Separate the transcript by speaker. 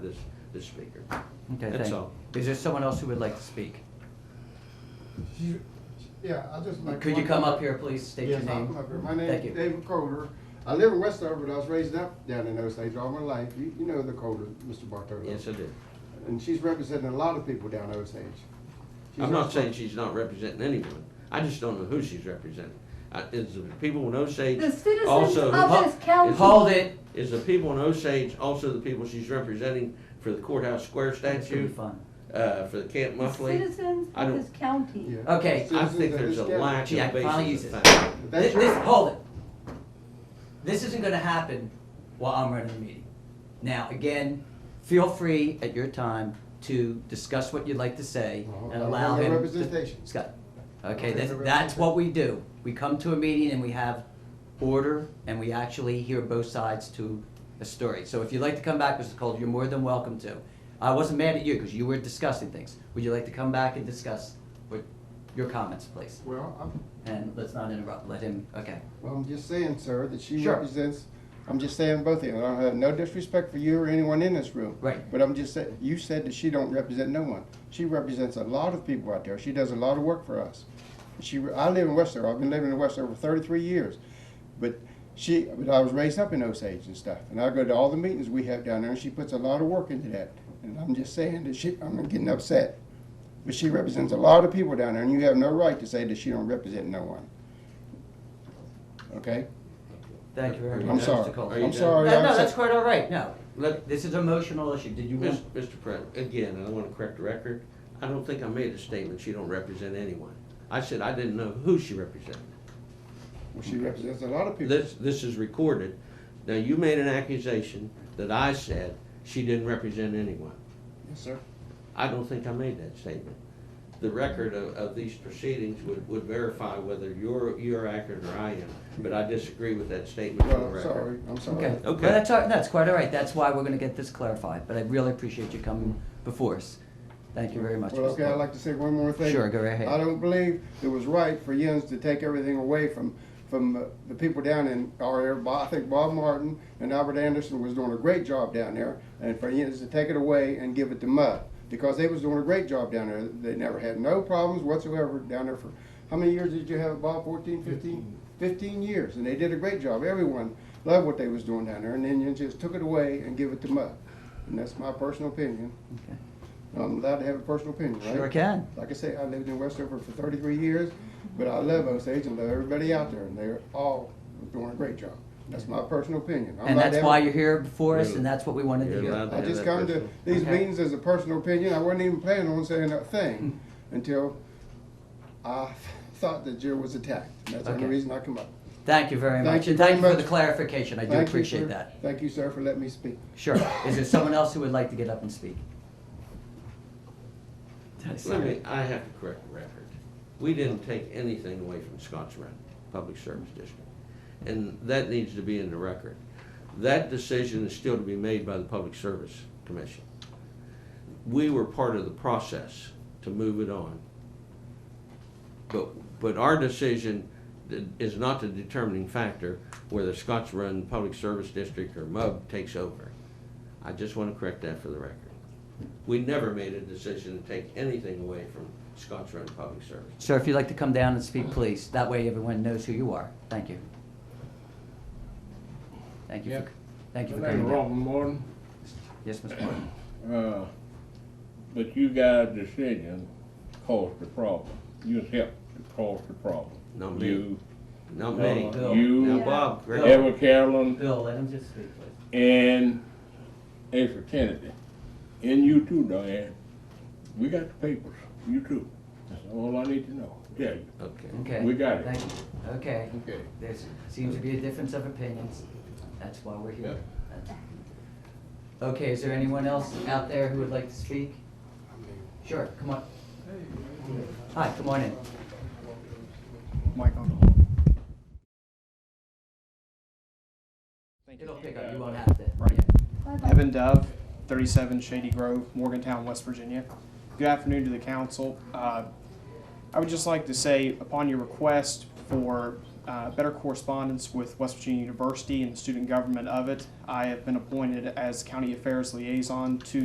Speaker 1: this, this speaker.
Speaker 2: Okay,
Speaker 1: That's
Speaker 2: thank you.
Speaker 1: all.
Speaker 2: Is there someone else who would like to speak?
Speaker 3: You- Yeah, I just like.
Speaker 2: Could you
Speaker 3: one-
Speaker 2: come up here, please, state your
Speaker 3: Yes, I'll
Speaker 2: name?
Speaker 3: come up here. My name
Speaker 2: Thank
Speaker 3: is
Speaker 2: you.
Speaker 3: David Coder. I live in Westover, but I was raised up down in Osage all my life. You, you know the Coder, Mr. Bartolo.
Speaker 1: Yes, I did.
Speaker 3: And she's representing a lot of people down Osage. She's
Speaker 1: I'm not
Speaker 3: also-
Speaker 1: saying she's not representing anyone. I just don't know who she's representing. Uh, Is the people in Osage
Speaker 4: The citizens
Speaker 1: also?
Speaker 4: of
Speaker 2: Ho-
Speaker 4: this county.
Speaker 2: Hold it.
Speaker 1: Is the people in Osage also the people she's representing for the courthouse square
Speaker 2: This will be
Speaker 1: statue,
Speaker 2: fun.
Speaker 1: uh, for the Camp
Speaker 4: The
Speaker 1: Muffley?
Speaker 4: Citizens
Speaker 1: I
Speaker 4: of
Speaker 1: don't-
Speaker 4: this county.
Speaker 3: Yeah.
Speaker 2: Okay,
Speaker 1: I
Speaker 3: Citizens
Speaker 1: think
Speaker 3: of
Speaker 1: there's
Speaker 3: this
Speaker 1: a
Speaker 3: county.
Speaker 1: lack
Speaker 2: Gee, I
Speaker 1: of
Speaker 2: finally
Speaker 1: basis
Speaker 2: use
Speaker 1: of
Speaker 2: it.
Speaker 1: fact.
Speaker 3: That's
Speaker 2: This,
Speaker 3: your-
Speaker 2: this, hold it. This isn't gonna happen while I'm running the meeting. Now, again, feel free at your time to discuss what you'd like to say
Speaker 3: Well,
Speaker 2: and
Speaker 3: I
Speaker 2: allow
Speaker 3: want
Speaker 2: him.
Speaker 3: the
Speaker 2: to-
Speaker 3: representation.
Speaker 2: Scott,
Speaker 3: I
Speaker 2: okay, that's,
Speaker 3: want the
Speaker 2: that's what
Speaker 3: representation.
Speaker 2: we do. We come to a meeting and we have order and we actually hear both sides to a story. So if you'd like to come back, Mr. Cole, you're more than welcome to. I wasn't mad at you because you were discussing things. Would you like to come back and discuss what, your comments, please?
Speaker 3: Well, I'm,
Speaker 2: And let's not interrupt, let him, okay.
Speaker 3: well, I'm just saying, sir, that she
Speaker 2: Sure.
Speaker 3: represents, I'm just saying both of you. I have no disrespect for you or anyone in this room.
Speaker 2: Right.
Speaker 3: But I'm just saying, you said that she don't represent no one. She represents a lot of people out there. She does a lot of work for us. She, I live in Westover. I've been living in Westover for 33 years, but she, but I was raised up in Osage and stuff, and I go to all the meetings we have down there, and she puts a lot of work into that. And I'm just saying that she, I'm getting upset, but she represents a lot of people down there, and you have no right to say that she don't represent no one. Okay,
Speaker 2: Thank you very
Speaker 1: Are you
Speaker 2: much,
Speaker 3: I'm
Speaker 1: done?
Speaker 2: Mr.
Speaker 3: sorry.
Speaker 2: Cole.
Speaker 1: Are you
Speaker 3: I'm
Speaker 1: done?
Speaker 3: sorry.
Speaker 2: No,
Speaker 3: I'm
Speaker 2: no,
Speaker 3: so-
Speaker 2: that's quite all right, no.
Speaker 1: Let,
Speaker 2: This is an emotional issue, did you
Speaker 1: Mis-
Speaker 2: want?
Speaker 1: Mr. President, again, I want to correct the record. I don't think I made a statement, she don't represent anyone. I said I didn't know who she represented.
Speaker 3: Well, she represents a lot of people.
Speaker 1: This, this is recorded. Now, you made an accusation that I said she didn't represent anyone.
Speaker 3: Yes, sir. Uh,
Speaker 1: I don't think I made that statement. The record of, of these proceedings would, would verify whether you're, you're accurate or I am, but I disagree with that statement on the
Speaker 3: Well, I'm
Speaker 1: record.
Speaker 3: sorry. I'm sorry.
Speaker 2: Okay, well,
Speaker 1: Okay.
Speaker 2: that's, all- that's quite all right, that's why we're gonna get this clarified, but I really appreciate you coming before us. Thank you very much.
Speaker 3: Well,
Speaker 2: Mr.
Speaker 3: okay,
Speaker 2: Cole.
Speaker 3: I'd like to say one more thing.
Speaker 2: Sure, go right ahead.
Speaker 3: I don't believe it was right for Jens to take everything away from, from uh, the people down in our area. Bo- I think Bob Martin and Albert Anderson was doing a great job down there, and for Jens to take it away and give it to Mudd, because they was doing a great job down there. They never had no problems whatsoever down there for, how many years did you have, Bob, 14, 15? 15 years, and they did a great job. Everyone loved what they was doing down there, and then Jens just took it away and give it to Mudd. And that's my personal opinion.
Speaker 2: Okay.
Speaker 3: I'm allowed to have a personal opinion, right?
Speaker 2: Sure can.
Speaker 3: Like I say, I lived in Westover for thirty-three years, but I love Osage and love everybody out there, and they're all doing a great job. That's my personal opinion. I'm
Speaker 2: And
Speaker 3: not
Speaker 2: that's
Speaker 3: down-
Speaker 2: why you're here before us, and
Speaker 1: Yeah.
Speaker 2: that's what we wanted to
Speaker 1: You're allowed
Speaker 2: hear.
Speaker 1: to
Speaker 3: I
Speaker 1: have that
Speaker 3: just come to
Speaker 1: personal-
Speaker 3: these
Speaker 2: Okay.
Speaker 3: meetings as a personal opinion. I wasn't even planning on saying a thing until I thought that Jill was attacked. And That's the only
Speaker 2: Okay.
Speaker 3: reason I come up.
Speaker 2: Thank you very
Speaker 3: Thank
Speaker 2: much,
Speaker 3: you
Speaker 2: and thank you
Speaker 3: very
Speaker 2: for the
Speaker 3: much.
Speaker 2: clarification, I do
Speaker 3: Thank you, sir.
Speaker 2: appreciate that.
Speaker 3: Thank you, sir, for letting me speak.
Speaker 2: Sure, is there someone else who would like to get up and speak? Did I say
Speaker 1: Let
Speaker 2: it?
Speaker 1: me, I have to correct the record. We didn't take anything away from Scotts Run Public Service District. And that needs to be in the record. That decision is still to be made by the Public Service Commission. We were part of the process to move it on. But, but our decision th- is not the determining factor whether Scotts Run Public Service District or MUB takes over. I just want to correct that for the record. We never made a decision to take anything away from Scotts Run Public Service.
Speaker 2: Sir, if you'd like to come down and speak, please. That way everyone knows who you are. Thank you. Thank you
Speaker 5: Yeah.
Speaker 2: for, thank you for
Speaker 5: My name
Speaker 2: coming
Speaker 5: is
Speaker 2: down.
Speaker 5: Robin Morton,
Speaker 2: Yes, Mr. Martin.
Speaker 5: uh, but you guys' decision caused the problem. You helped to cause the problem.
Speaker 1: Not me.
Speaker 5: You,
Speaker 1: Not me.
Speaker 5: uh,
Speaker 1: Now,
Speaker 5: You,
Speaker 1: Bob,
Speaker 2: Yeah.
Speaker 1: correct-
Speaker 5: Ever Carolyn,
Speaker 2: Bill, let him just speak, please.
Speaker 5: and Asa Kennedy, and you too, Diane. We got the papers, you too. That's all I need to know, yeah.
Speaker 1: okay.
Speaker 2: Okay.
Speaker 5: We got it.
Speaker 2: Thank you. Okay.
Speaker 5: Okay.
Speaker 2: There seems to be a difference of opinions. That's why we're here. Okay, is there anyone else out there who would like to speak? Sure, come on. Hi, come on in.
Speaker 6: Mike on the horn. Thank
Speaker 2: It'll
Speaker 6: you.
Speaker 2: pick up, you won't have to.
Speaker 6: Right.
Speaker 2: Yeah.
Speaker 6: Evan Dove, 37 Shady Grove, Morgantown, West Virginia. Good afternoon to the council. Uh, I would just like to say, upon your request for uh, better correspondence with West Virginia University and the student government of it. I have been appointed as county affairs liaison to